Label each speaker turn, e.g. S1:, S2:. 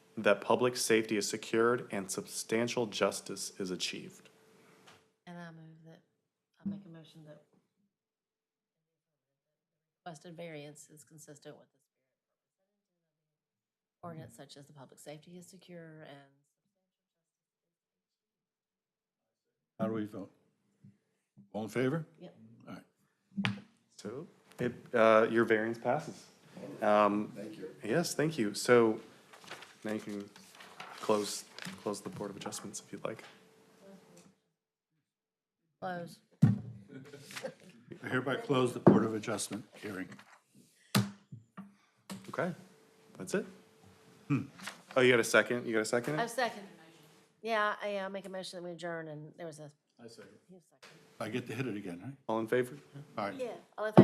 S1: that public safety is secured and substantial justice is achieved.
S2: And I move that, I make a motion that requested variance is consistent with the spirit ordinance such as the public safety is secure and
S3: How do we vote? All in favor?
S2: Yep.
S3: All right.
S1: So it, uh, your variance passes. Thank you. Yes, thank you. So now you can close, close the Board of Adjustments if you'd like.
S2: close.
S3: I hereby close the Board of Adjustment hearing.
S1: Okay, that's it. Oh, you got a second? You got a second?
S2: I second. Yeah, I, uh make a motion that we adjourn and there was a,
S3: I second.
S2: he was second.
S3: I get to hit it again,
S1: All in favor?
S3: right? All right.
S2: Yeah. All in favor?